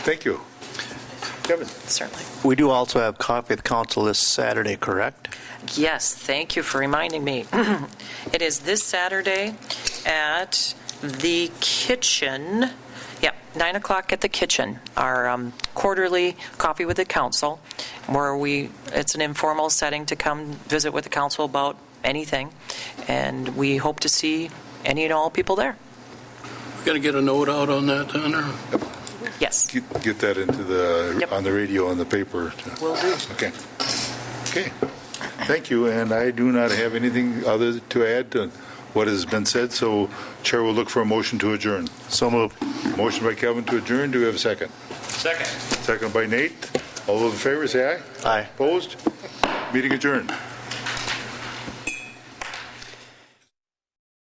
Thank you. Kevin? Certainly. We do also have coffee with council this Saturday, correct? Yes, thank you for reminding me. It is this Saturday at the kitchen, yep, 9 o'clock at the kitchen, our um, quarterly coffee with the council, where we, it's an informal setting to come visit with the council about anything, and we hope to see any and all people there. Going to get a note out on that, then, or? Yes, Get get that into the, Yep. on the radio, on the paper. will do. Okay. Okay. Thank you, and I do not have anything other to add to what has been said, so Chair will look for a motion to adjourn. So moved. Motion by Kevin to adjourn, do we have a second? Second. Second by Nate. All those in favor, say aye. Aye. Opposed? Meeting adjourned.